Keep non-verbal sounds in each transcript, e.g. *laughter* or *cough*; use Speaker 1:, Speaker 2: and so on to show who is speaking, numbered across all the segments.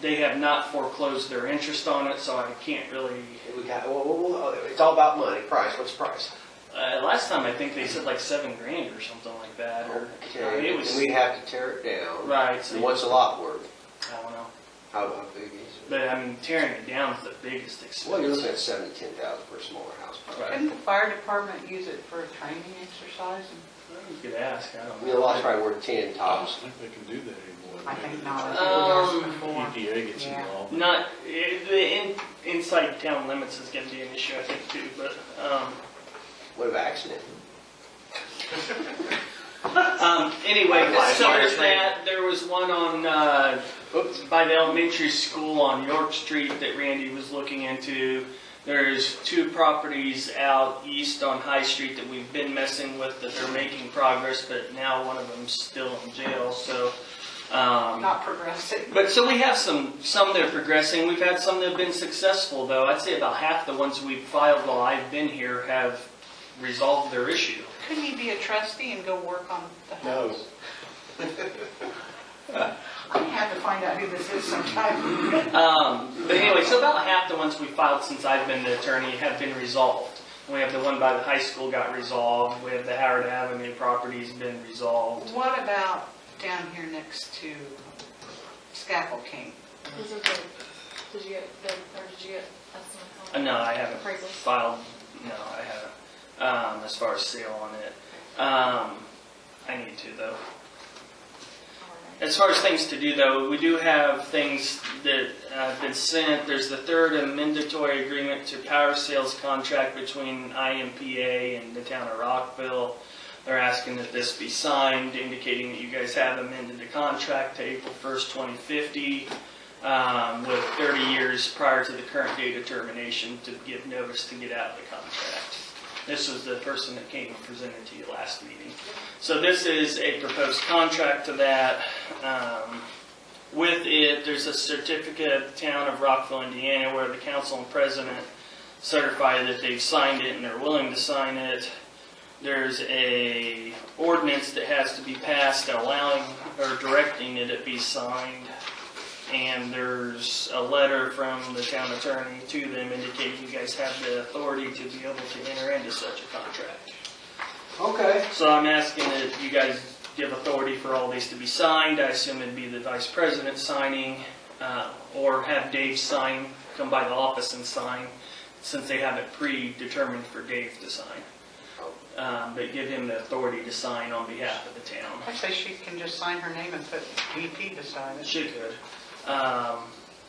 Speaker 1: They have not foreclosed their interest on it, so I can't really,
Speaker 2: We got, well, well, well, it's all about money, price, what's the price?
Speaker 1: uh, last time I think they said like seven grand or something like that, or, I mean,
Speaker 2: Okay,
Speaker 1: it
Speaker 2: and
Speaker 1: was,
Speaker 2: we'd have to tear it down.
Speaker 1: right, so,
Speaker 2: And
Speaker 1: I
Speaker 2: what's a lot worth?
Speaker 1: don't know.
Speaker 2: How, how big is it?
Speaker 1: But I mean, tearing it down is the biggest expense.
Speaker 2: Well, you're looking at seven to ten thousand for a smaller house.
Speaker 1: Right.
Speaker 3: Couldn't the fire department use it for a training exercise?
Speaker 1: You could ask, I
Speaker 2: I
Speaker 1: don't
Speaker 2: mean,
Speaker 1: know.
Speaker 2: a lot's probably worth ten
Speaker 4: I don't
Speaker 2: tops.
Speaker 4: think they can do that anymore.
Speaker 3: I think not, I
Speaker 1: Um,
Speaker 3: think it was before.
Speaker 4: EPA gets
Speaker 3: Yeah.
Speaker 4: involved.
Speaker 1: Not, eh, the in, inside town limits is gonna be an issue, I think, too, but, um,
Speaker 2: What about accident?
Speaker 1: um, anyway,
Speaker 2: Why-
Speaker 1: so
Speaker 2: why is
Speaker 1: there's that, there was one on, uh,
Speaker 2: Oops.
Speaker 1: by the elementary school on York Street that Randy was looking into. There's two properties out east on High Street that we've been messing with that they're making progress, but now one of them's still in jail, so, um.
Speaker 3: Not progressive.
Speaker 1: But so we have some some that are progressing. We've had some that have been successful, though. I'd say about half the ones we've filed while I've been here have resolved their issue.
Speaker 3: Couldn't he be a trustee and go work on the
Speaker 2: *laughs*
Speaker 4: No.
Speaker 3: house? I have to find out who this is sometime.
Speaker 1: Um, but anyway, so about half the ones we filed since I've been the attorney have been resolved. We have the one by the high school got resolved. We have the Howard Avenue property's been resolved.
Speaker 3: What about down here next to Scaffold King?
Speaker 5: Isn't the, did you get bid, or did you get estimate on
Speaker 1: Uh, no, I haven't
Speaker 5: Appraisals.
Speaker 1: filed. No, I haven't. Um, as far as sale on it, um, I need to though.
Speaker 5: Alright.
Speaker 1: As far as things to do, though, we do have things that uh, have been sent. There's the third amendatory agreement to power sales contract between IMPA and the town of Rockville. They're asking that this be signed, indicating that you guys have amended the contract to April 1st, 2050, um, with 30 years prior to the current date of termination to give notice to get out of the contract. This was the person that came and presented to you last meeting. So this is a proposed contract to that. Um, With it, there's a certificate of the town of Rockville, Indiana, where the council and president certify that they've signed it and they're willing to sign it. There's a ordinance that has to be passed allowing or directing that it be signed. And there's a letter from the town attorney to them indicating you guys have the authority to be able to enter into such a contract.
Speaker 2: Okay.
Speaker 1: So I'm asking that you guys give authority for all these to be signed. I assume it'd be the vice president signing, uh, or have Dave sign, come by the office and sign, since they have it predetermined for Dave to sign. Um, But give him the authority to sign on behalf of the town.
Speaker 3: I say she can just sign her name and put VP beside it.
Speaker 1: She could. Um,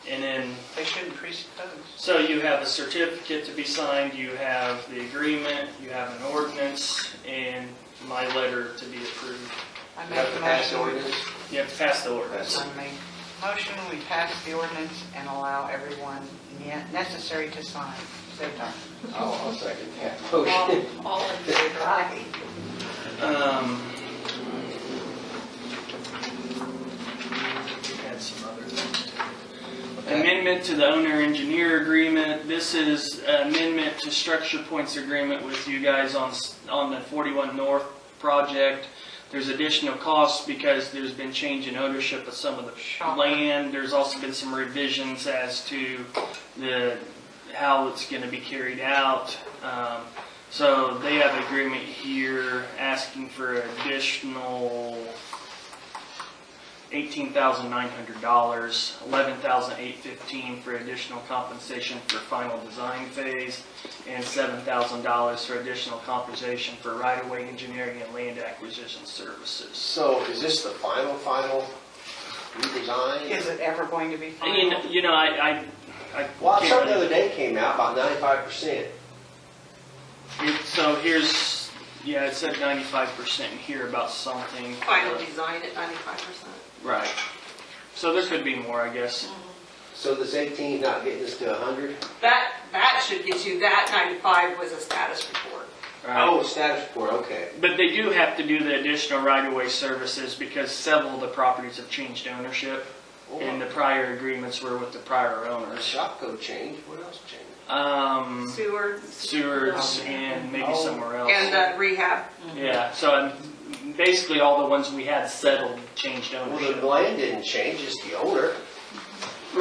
Speaker 1: And then
Speaker 3: They shouldn't presuppose.
Speaker 1: So you have a certificate to be signed, you have the agreement, you have an ordinance, and my letter to be approved.
Speaker 3: I
Speaker 2: You
Speaker 3: make
Speaker 2: have
Speaker 3: a
Speaker 2: to pass the
Speaker 3: motion.
Speaker 2: ordinance?
Speaker 1: You have to pass the ordinance.
Speaker 2: That's-
Speaker 3: I make motion, we pass the ordinance and allow everyone ne- necessary to sign. Save time.
Speaker 2: Oh, I'll second *laughs* that
Speaker 3: All
Speaker 2: motion.
Speaker 3: all in favor? Aye.
Speaker 1: Um, we had some other things too. Amendment to the owner-engineer agreement. This is amendment to structure points agreement with you guys on, s- on the 41 North project. There's additional costs because there's been change in ownership of some of the
Speaker 3: Shocker.
Speaker 1: land. There's also been some revisions as to the, how it's going to be carried out. Um, So they have agreement here asking for additional eighteen thousand nine hundred dollars, eleven thousand eight fifteen for additional compensation for final design phase, and seven thousand dollars for additional compensation for right-of-way engineering and land acquisition services.
Speaker 2: So is this the final, final redesign?
Speaker 3: Is it ever going to be
Speaker 1: And you
Speaker 3: final?
Speaker 1: know, you know, I, I, I.
Speaker 2: Well,
Speaker 1: can't
Speaker 2: something the
Speaker 1: really-
Speaker 2: other day came out about ninety-five percent.
Speaker 1: It- So here's, yeah, it said ninety-five percent here about something.
Speaker 6: Final design at ninety-five percent.
Speaker 1: Right. So there could be more, I guess.
Speaker 6: Mm.
Speaker 2: So this eighteen not getting us to a hundred?
Speaker 6: That, that should get you, that ninety-five was a status report.
Speaker 1: Right.
Speaker 2: Oh, status report, okay.
Speaker 1: But they do have to do the additional right-of-way services because several of the properties have changed ownership
Speaker 2: Oh.
Speaker 1: and the prior agreements were with the prior owners.
Speaker 2: Shopco changed, what else changed?
Speaker 1: Um,
Speaker 6: Sewer.
Speaker 1: sewers and maybe somewhere
Speaker 6: And
Speaker 1: else.
Speaker 6: uh, rehab.
Speaker 1: Yeah, so um, basically all the ones we had settled changed
Speaker 2: Well, the
Speaker 1: ownership.
Speaker 2: land didn't change, it's the owner.